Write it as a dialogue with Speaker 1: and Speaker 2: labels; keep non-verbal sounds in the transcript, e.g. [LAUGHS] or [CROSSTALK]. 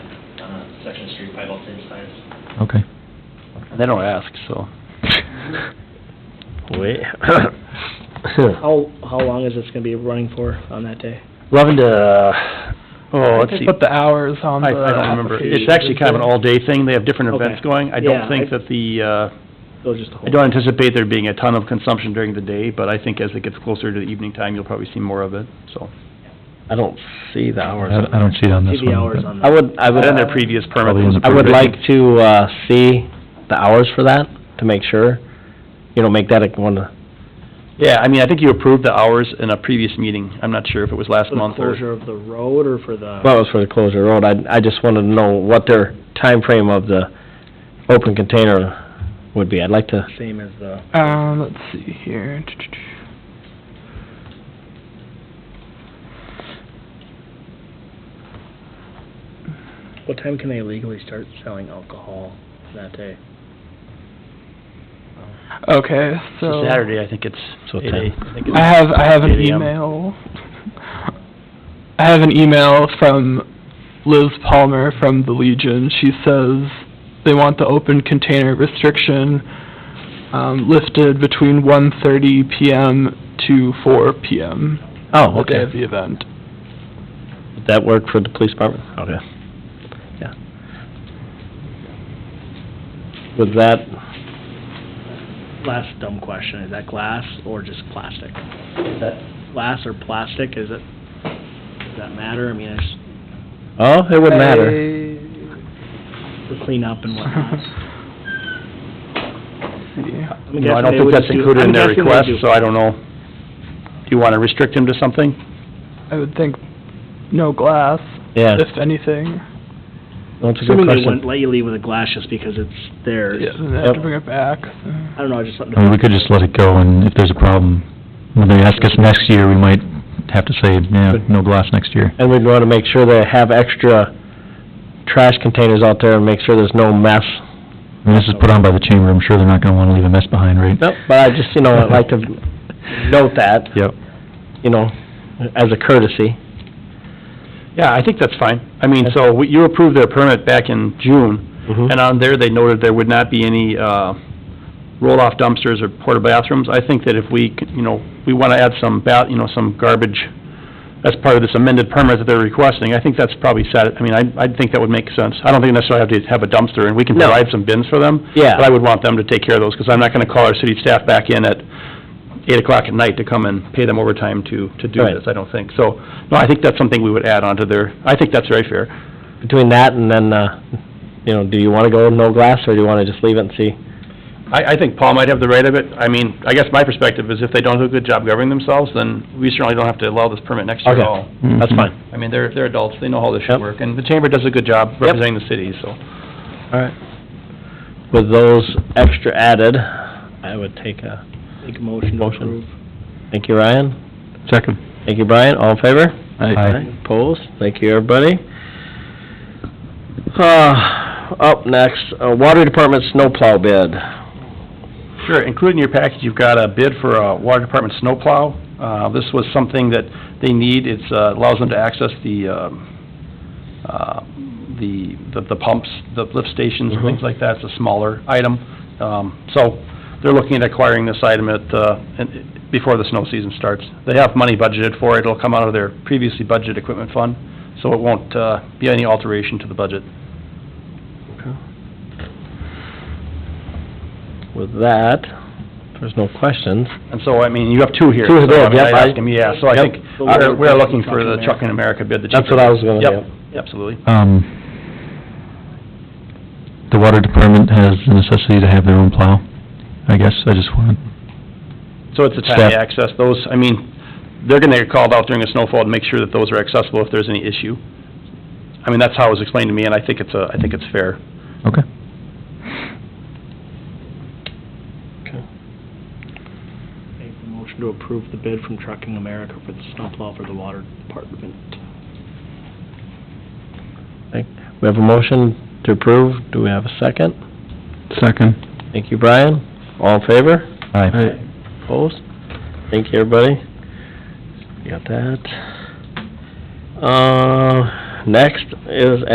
Speaker 1: section of the street, probably about same size.
Speaker 2: Okay.
Speaker 3: They don't ask, so.
Speaker 2: Wait.
Speaker 4: How, how long is this gonna be running for Uh, on that day?
Speaker 2: Eleven to, oh, let's
Speaker 5: They
Speaker 2: see.
Speaker 5: Put the hours on the
Speaker 2: I, I don't remember.
Speaker 5: application.
Speaker 2: It's actually kind of an all-day thing. They have different
Speaker 4: Okay.
Speaker 2: events going. I
Speaker 4: Yeah,
Speaker 2: don't
Speaker 4: I-
Speaker 2: think that the, uh,
Speaker 4: They'll just hold?
Speaker 2: I don't anticipate there being a ton of consumption during the day, but I think as it gets closer to the evening time, you'll probably see more of it, so.
Speaker 3: I don't see the hours.
Speaker 2: I- I don't see it on this
Speaker 4: TV hours on
Speaker 3: I
Speaker 4: that.
Speaker 3: would, I would,
Speaker 2: But in their previous permit
Speaker 3: Probably
Speaker 2: was
Speaker 3: I
Speaker 2: approved,
Speaker 3: would
Speaker 2: I
Speaker 3: like
Speaker 2: think.
Speaker 3: to, uh, see the hours for that, to make sure. You know, make that a, one, of-
Speaker 2: Yeah, I mean, I think you approved the hours in a previous meeting. I'm not sure if it was
Speaker 4: For
Speaker 2: last
Speaker 4: the
Speaker 2: month or...
Speaker 4: closure of the road or for the?
Speaker 3: well, it was for the closure road. I, I just wanted to know what their time frame of the open container would be. I'd like to,
Speaker 4: Same as the,
Speaker 5: Um, let's see here.
Speaker 4: what time can they legally start selling alcohol that day?
Speaker 5: Okay,
Speaker 2: It's
Speaker 5: so.
Speaker 2: a Saturday, I think it's
Speaker 3: So
Speaker 2: eight a-
Speaker 3: ten.
Speaker 2: I think it's-
Speaker 5: I have, I have an
Speaker 2: 8 a.m..
Speaker 5: email. I have an email from Liz Palmer from the Legion. She says they want the open container restriction, um, lifted between one thirty PM to four PM,
Speaker 3: oh,
Speaker 5: the day
Speaker 3: okay.
Speaker 5: of the event.
Speaker 3: Would that work for the police department? Okay. Yeah. With that,
Speaker 4: Last dumb question, is that glass or just plastic?
Speaker 3: that,
Speaker 4: Glass or plastic, is it, does that matter? I mean, it's
Speaker 3: oh, it wouldn't matter.
Speaker 4: the cleanup and whatnot.
Speaker 2: [LAUGHS]
Speaker 5: Yeah.
Speaker 4: I'm
Speaker 2: No,
Speaker 4: guessing
Speaker 2: I don't
Speaker 4: they
Speaker 2: think
Speaker 4: would
Speaker 2: that's
Speaker 4: do-
Speaker 2: included in
Speaker 4: I'm
Speaker 2: their
Speaker 4: guessing they
Speaker 2: request,
Speaker 4: do.
Speaker 2: so I don't know. Do you want to restrict him to something?
Speaker 5: I would think no glass,
Speaker 3: Yeah,
Speaker 5: if anything.
Speaker 3: that's a good
Speaker 4: Assuming they wouldn't
Speaker 3: question.
Speaker 4: let you leave with a glass just because it's theirs.
Speaker 5: Yeah, then they have to
Speaker 3: Yep.
Speaker 5: bring it back.
Speaker 4: I don't know, I just something.
Speaker 2: we could just let it go, and if there's a problem, when they ask us next year, we might have to say, yeah, no glass next year.
Speaker 3: And we'd want to make sure they have extra trash containers out there and make sure there's no mess.
Speaker 2: I mean, this is put on by the chamber, I'm sure they're not gonna wanna leave a mess behind, right?
Speaker 3: Yep. But I just, you know, I'd like to note that,
Speaker 2: Yep.
Speaker 3: you know, as a courtesy.
Speaker 2: Yeah, I think that's fine. I mean, so, we- you approved their permit back in June, and on there, they noted there would not be any, uh, roll-off dumpsters or porta bathrooms. I think that if we, c- you know, we wanna add some ba, you know, some garbage, as part of this amended permit that they're requesting, I think that's probably set, I mean, I, I think that would make sense. I don't think necessarily have to have a dumpster, and we can
Speaker 3: No.
Speaker 2: provide some bins for them.
Speaker 3: Yeah.
Speaker 2: But I would want them to take care of those, because I'm not gonna call our city staff back in at eight o'clock at night to come and pay them overtime to, to do
Speaker 3: Right.
Speaker 2: this, I don't think. So, no, I think that's something we would add onto their, I think that's very fair.
Speaker 3: Between that and then, uh, you know, do you want to go no glass or do you want to just leave it and see?
Speaker 2: I, I think Paul might have the right of it. I mean, I guess my perspective is if they don't do a good job governing themselves, then we certainly don't have to allow this permit next year at
Speaker 3: Okay.
Speaker 2: all.
Speaker 3: That's fine.
Speaker 2: I mean, they're, they're adults, they know how this should
Speaker 3: Yep.
Speaker 2: work, and the chamber does a good job representing the city, so.
Speaker 3: All right. With those extra added, I would take a,
Speaker 4: Make a motion to
Speaker 3: Motion.
Speaker 4: approve.
Speaker 3: thank you, Ryan.
Speaker 2: Second.
Speaker 3: Thank you, Brian. All in favor?
Speaker 2: Aye.
Speaker 3: Opposed? Thank you, everybody. Uh, up next, uh, Water Department snowplow bid.
Speaker 2: Sure, included in your package, you've got a bid for a water department snowplow. Uh, This was something that they need, it allows them to access the, um, uh, the the the pumps, the lift stations and things
Speaker 3: Mhm.
Speaker 2: like that, it's a smaller item. Um, So they're looking at acquiring this item at, uh, and- before the snow season starts. They have money budgeted for it, it'll come out of their previously budgeted equipment fund, so it won't uh, be any alteration to the budget.
Speaker 3: With that, there's no questions.
Speaker 2: And so, I mean, you have two here. so,
Speaker 3: Two
Speaker 2: I
Speaker 3: bids,
Speaker 2: mean,
Speaker 3: yep,
Speaker 2: I'd
Speaker 3: I-
Speaker 2: ask him, Yeah, so I
Speaker 3: yep.
Speaker 2: think, our- we're looking for the Trucking America bid, the cheaper.
Speaker 3: That's what I was gonna,
Speaker 2: Yep,
Speaker 3: yep.
Speaker 2: absolutely.
Speaker 6: Um, the water department has the necessity to have their own plow, I guess, I just wanted,
Speaker 2: So it's a timely access, those, I mean, they're gonna get called out during a snowfall to make sure that those are accessible if there's any issue. I mean, that's how it was explained to me, and I think it's a, I think it's fair.
Speaker 6: okay.
Speaker 4: Make a motion to approve the bid from Trucking America for the snowplow for the water department.
Speaker 3: We have a motion to approve. Do we have a second?
Speaker 6: Second.
Speaker 3: Thank you, Brian. All in favor?
Speaker 6: Aye.
Speaker 3: Opposed? Thank you, everybody. You Got that. Uh, next is